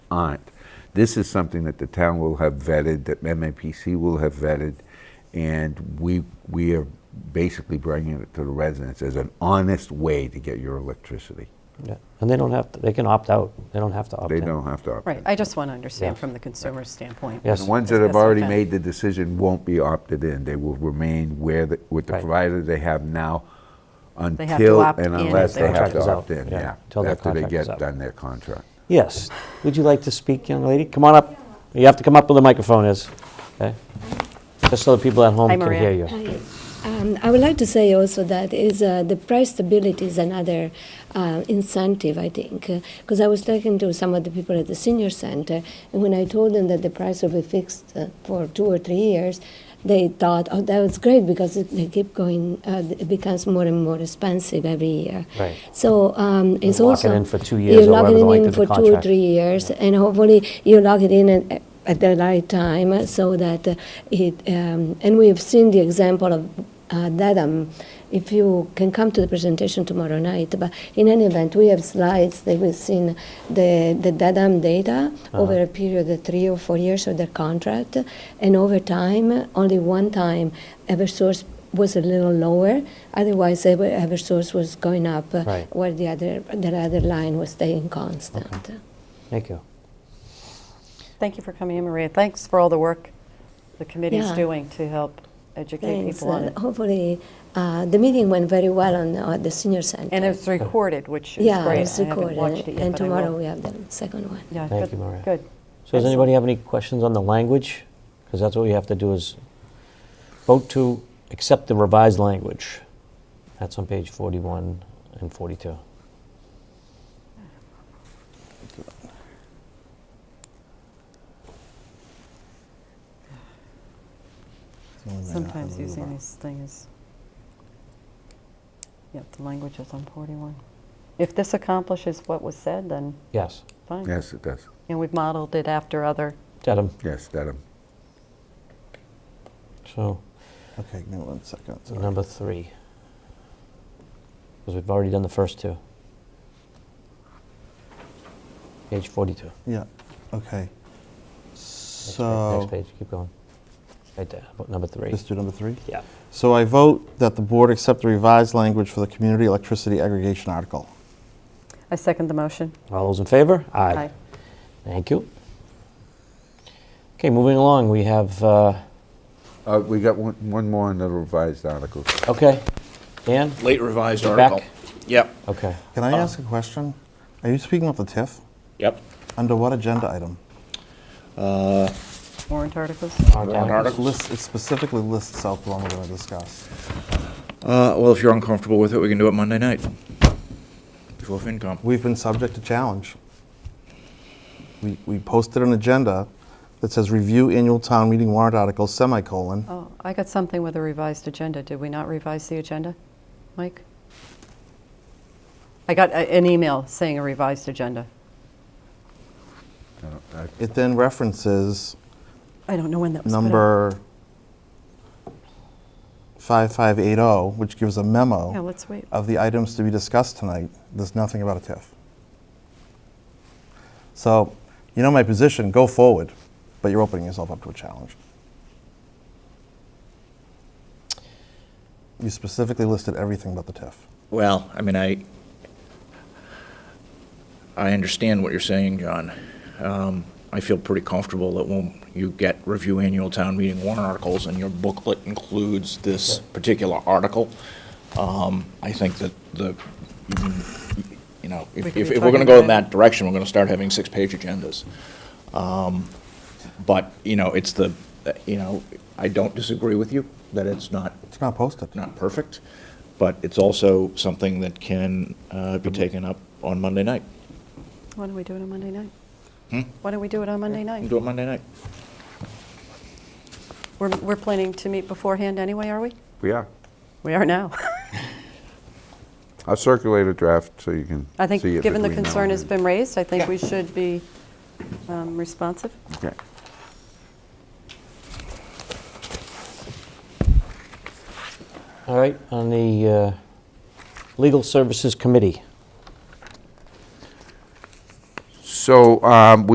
aren't. This is something that the town will have vetted, that MMPC will have vetted, and we, we are basically bringing it to the residents as an honest way to get your electricity. Yeah, and they don't have, to they can opt out, they don't have to opt They in. don't have to opt in. Right, I just want to understand Yeah. from the consumer standpoint. Yes. The ones that have Discuss with already them. made the decision won't be opted in. They will remain where, the- with the Right. provider they have now They have to until opt and in if unless they they want have to. to Contract opt is out, in, yeah, yeah. till their After they contract is get out. done their contract. Yes, would you like to speak, young lady? Come on up, you have to come up where the microphone is, okay? Just so the people at home Hi, can Maria. hear you. Hi. Um, I would like to say also that is uh, the price stability is another uh, incentive, I think, because I was talking to some of the people at the senior center, and when I told them that the price will be fixed uh, for two or three years, they thought, "Oh, that was great because it, they keep going; uh, it becomes more and more expensive every year." Right. So um, it's lock also it in for two years you or lock whatever it the length in of the for two or contract. three years, and hopefully you log it in at, at the right time uh, so that uh, it. Um, and we've seen the example of uh, that. Um, if you can come to the presentation tomorrow night, but in any event, we have slides that we've seen the the DADAM data over a period of three or four years of their contract, and over time, only one time, EverSource was a little lower. Otherwise, Ever- EverSource was going up, uh, Right. where the other the other line was staying constant. Thank you. Thank you for coming in, Maria. Thanks for all the work the committee's Yeah. doing to help educate Thanks. people on Uh, it. hopefully, uh, the meeting went very well on uh, the senior center. And it's recorded, which is yeah, great. it's I haven't recorded, watched it yet, and but I tomorrow will. we have the second one. Yeah, Thank good- you, Maria. Good. Oh, So does Excellent. anybody have any questions on the language? Because that's what we have to do is vote to accept the revised language. That's on page 41 and 42. Sometimes using these things. Yep, the language is on 41. If this accomplishes what was said, then Yes, fine. Yes, it does. And we've modeled it after other, Dedham, Yes, that, so Okay, give me one second. sorry. number three. Because we've already done the first two. Page 42. Yeah, okay. Next page, So, Next page, keep going. Right there, about number three. let's do number three. Yeah. So I vote that the board accept the revised language for the community electricity aggregation article. I second the motion. All those in favor? Aye. Thank you. Okay, moving along, we have, uh, uh, we got one, one more on the revised articles. okay, Dan? Late revised You're back. article. Yep, Okay, Can I ask a question? Are you speaking of the TIF? yep. Under what agenda item? Warrant articles? Warrant Warrant It articles. lists- it specifically lists South Palm we're going to discuss. Uh, well, if you're uncomfortable with it, we can do it Monday night. Before FinCom. We've been subject to challenge. We we posted an agenda that says review annual town meeting warrant article semicolon. Oh, I got something with a revised agenda. Did we not revise the agenda, Mike? I got a- an email saying a revised agenda. I don't- I- It then references I don't know when that was. put out. number 5580, oh, which gives a Yeah, memo let's wait. of the items to be discussed tonight. There's nothing about a TIF. So, you know my position, go forward, but you're opening yourself up to a challenge. You specifically listed everything but the TIF. Well, I mean, I, I understand what you're saying, John. Um, I feel pretty comfortable that when you get review annual town meeting warrant articles and your booklet includes this particular article, um, I think that the, you know, if, We could be if if we're talking gonna go in about it. that direction, we're gonna start having six-page agendas. Um, But, you know, it's the, you know, I don't disagree with you that it's not It's not posted. not perfect, but it's also something that can uh, be taken up on Monday night. Why don't we do it on Monday night? Why don't we do it on Monday We can night? Hmm? Do it Monday night. We're, we're planning to meet beforehand anyway, are we? We are. We are now. I'll circulate a draft so you can I think, see it given the between now concern and has then. been raised, I think we should be um, responsive. Okay. all right, on the uh, Legal Services Committee. So, um,